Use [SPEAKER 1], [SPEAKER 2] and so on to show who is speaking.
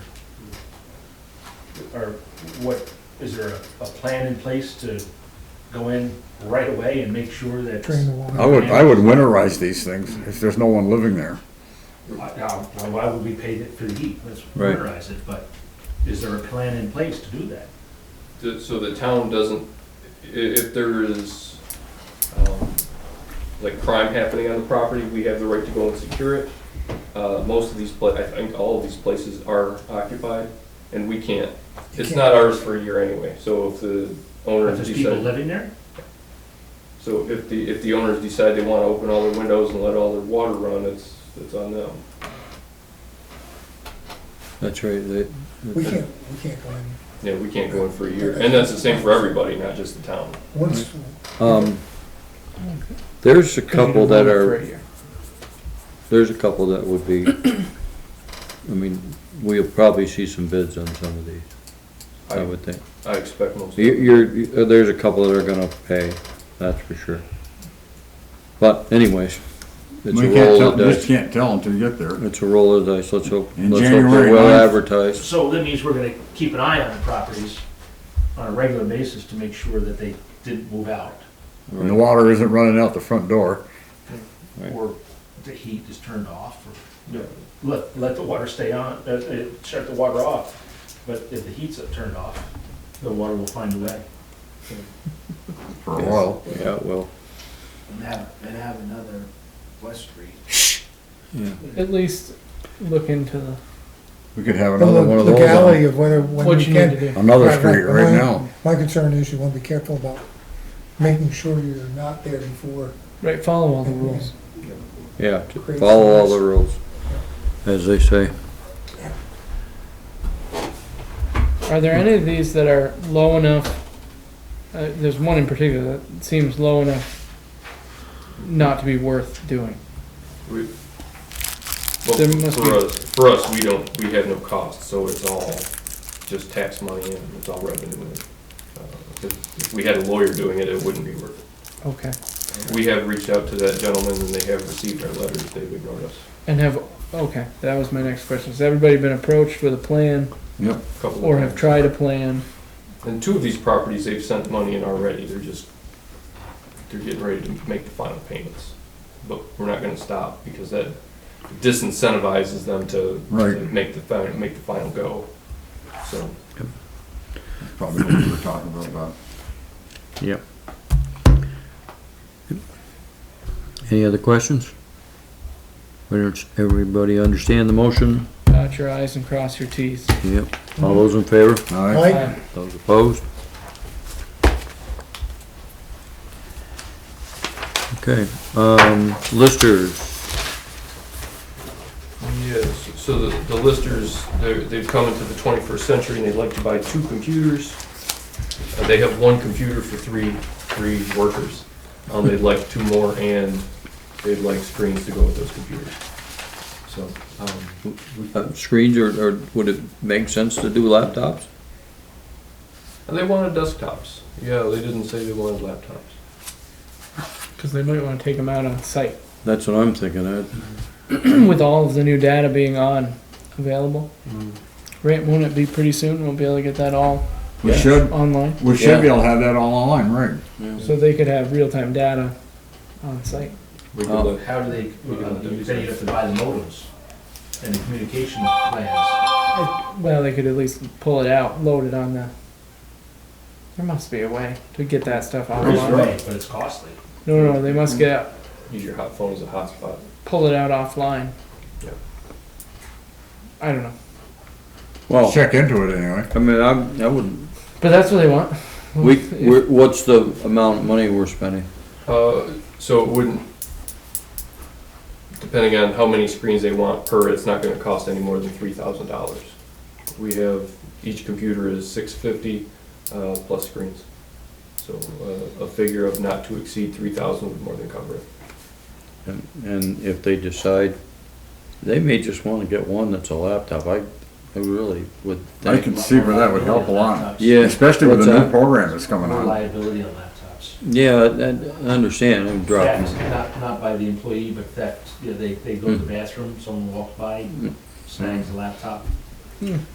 [SPEAKER 1] or what, is there a, a plan in place to go in right away and make sure that?
[SPEAKER 2] drain the water.
[SPEAKER 3] I would, I would winterize these things if there's no one living there.
[SPEAKER 1] Now, now, why would we pay it for the heat? Let's
[SPEAKER 3] Right.
[SPEAKER 1] winterize it, but is there a plan in place to do that?
[SPEAKER 4] The- So the town doesn't, i- if there is, um, like crime happening on the property, we have the right to go and secure it. Uh, most of these pla, I think all of these places are occupied, and we can't. It's not ours for a year anyway, so if the
[SPEAKER 1] If
[SPEAKER 4] owners
[SPEAKER 1] there's people
[SPEAKER 4] decide,
[SPEAKER 1] living there?
[SPEAKER 4] so if the, if the owners decide they wanna open all their windows and let all their water run, it's, it's on them.
[SPEAKER 5] That's right, they,
[SPEAKER 2] We can't, we can't go in.
[SPEAKER 4] Yeah, we can't go in for a year, and that's the same for everybody, not just the town.
[SPEAKER 3] Mm.
[SPEAKER 2] Once,
[SPEAKER 5] um, there's a couple that are, there's a couple that would be, I mean, we'll probably see some bids on some of these, I would think.
[SPEAKER 4] I expect most.
[SPEAKER 5] You- You're, you- there's a couple that are gonna pay, that's for sure. But anyways, it's a
[SPEAKER 3] We can't
[SPEAKER 5] roll
[SPEAKER 3] tell,
[SPEAKER 5] of the
[SPEAKER 3] just
[SPEAKER 5] dice,
[SPEAKER 3] can't tell until you get there.
[SPEAKER 5] it's a roll of the dice, let's hope,
[SPEAKER 3] In
[SPEAKER 5] let's hope
[SPEAKER 3] January
[SPEAKER 5] they're well
[SPEAKER 3] 9th.
[SPEAKER 5] advertised.
[SPEAKER 1] So that means we're gonna keep an eye on properties on a regular basis to make sure that they didn't move out
[SPEAKER 3] And the water isn't running out the front door.
[SPEAKER 5] Right.
[SPEAKER 1] or the heat is turned off or.
[SPEAKER 4] Yeah.
[SPEAKER 1] let, let the water stay on, uh, uh, shut the water off, but if the heat's turned off, the water will find a way.
[SPEAKER 3] For a while.
[SPEAKER 5] Yeah, it will.
[SPEAKER 6] And have, and have another West Street.
[SPEAKER 5] yeah.
[SPEAKER 7] At least look into the,
[SPEAKER 3] We could have
[SPEAKER 2] the
[SPEAKER 3] another one of those uh,
[SPEAKER 2] legality
[SPEAKER 3] on
[SPEAKER 2] of whether, when
[SPEAKER 7] what
[SPEAKER 2] we
[SPEAKER 7] you need to
[SPEAKER 2] can.
[SPEAKER 7] do.
[SPEAKER 3] another
[SPEAKER 2] Right,
[SPEAKER 3] street
[SPEAKER 2] but
[SPEAKER 3] right
[SPEAKER 2] my-
[SPEAKER 3] now.
[SPEAKER 2] My concern is you want to be careful about making sure you're not there before.
[SPEAKER 7] Right, follow all the rules.
[SPEAKER 5] Yeah, to
[SPEAKER 2] Create
[SPEAKER 5] follow all
[SPEAKER 2] some
[SPEAKER 5] the rules, as they say.
[SPEAKER 7] Are there any of these that are low enough? Uh, there's one in particular that seems low enough not to be worth doing.
[SPEAKER 4] We- Well,
[SPEAKER 7] There must be-
[SPEAKER 4] for us, for us, we don't, we have no cost, so it's all just tax money and it's all revenue. Uh, If if we had a lawyer doing it, it wouldn't be worth
[SPEAKER 7] Okay.
[SPEAKER 4] it. We have reached out to that gentleman and they have received our letters, they've ignored us
[SPEAKER 7] And have, okay, that was my next question. Has everybody been approached with a plan
[SPEAKER 3] Yep.
[SPEAKER 4] a couple of times.
[SPEAKER 7] or have tried a plan?
[SPEAKER 4] And two of these properties, they've sent money in already, they're just, they're getting ready to make the final payments. But we're not gonna stop because that disincentivizes them to
[SPEAKER 3] Right.
[SPEAKER 4] to make the, fi- make the final go, so.
[SPEAKER 3] Probably what we were talking about, about.
[SPEAKER 5] Yep. Any other questions? Whether it's- Everybody understand the motion?
[SPEAKER 7] Dot your i's and cross your t's. Uh,
[SPEAKER 5] Yep. All those in favor?
[SPEAKER 3] All right.
[SPEAKER 2] Mike?
[SPEAKER 7] Aye.
[SPEAKER 5] Those opposed? Okay, um, listers,
[SPEAKER 4] Yes, so the, the listers, they're, they've come into the twenty-first century and they'd like to buy two computers. Uh, They have one computer for three, three workers. Um, they'd like two more and they'd like screens to go with those computers. So, um,
[SPEAKER 5] uh, screens, or, or would it make sense to do laptops?
[SPEAKER 4] and they wanted desktops. Yeah, they didn't say they wanted laptops.
[SPEAKER 7] Cause they might wanna take them out on site.
[SPEAKER 5] That's what I'm thinking of.
[SPEAKER 7] With all of the new data being on available.
[SPEAKER 2] Mm.
[SPEAKER 7] Right, won't it be pretty soon? We'll be able to get that all
[SPEAKER 3] We
[SPEAKER 5] Yeah.
[SPEAKER 3] should,
[SPEAKER 7] online.
[SPEAKER 3] we
[SPEAKER 5] Yeah.
[SPEAKER 3] should be able to have that all online, right?
[SPEAKER 7] So they could have real-time data on site.
[SPEAKER 4] We could
[SPEAKER 5] Oh.
[SPEAKER 4] look-
[SPEAKER 1] How do they, uh, you say you have to buy the modems and the communication plans.
[SPEAKER 7] Well, they could at least pull it out, load it on the. There must be a way to get that stuff
[SPEAKER 1] There's a
[SPEAKER 7] online.
[SPEAKER 1] way, but it's costly.
[SPEAKER 7] No, no, they must get
[SPEAKER 4] Use your hot phone as a hotspot.
[SPEAKER 7] pull it out offline.
[SPEAKER 4] Yep.
[SPEAKER 7] I don't know,
[SPEAKER 5] Well,
[SPEAKER 3] Check into it anyway.
[SPEAKER 5] I mean, I, I wouldn't,
[SPEAKER 7] but that's what they want.
[SPEAKER 5] we, we're, what's the amount of money we're spending?
[SPEAKER 4] Uh, so it wouldn't, depending on how many screens they want per, it's not gonna cost any more than three thousand dollars. We have, each computer is six fifty, uh, plus screens. So, uh, a figure of not to exceed three thousand would more than cover it.
[SPEAKER 5] And, and if they decide, they may just wanna get one that's a laptop, I, I really would
[SPEAKER 3] I
[SPEAKER 5] think.
[SPEAKER 3] can see where that would help a lot.
[SPEAKER 1] Laptops.
[SPEAKER 5] Yeah.
[SPEAKER 3] Especially with
[SPEAKER 5] What's
[SPEAKER 3] the new
[SPEAKER 5] that?
[SPEAKER 3] program that's coming
[SPEAKER 1] More
[SPEAKER 3] on.
[SPEAKER 1] liability on laptops.
[SPEAKER 5] Yeah, I, I understand, I'm dropping.
[SPEAKER 1] Theft, Not, not by the employee, but
[SPEAKER 3] Mm-hmm.
[SPEAKER 1] that, you know, they, they go to the bathroom, someone walks by, snags the laptop.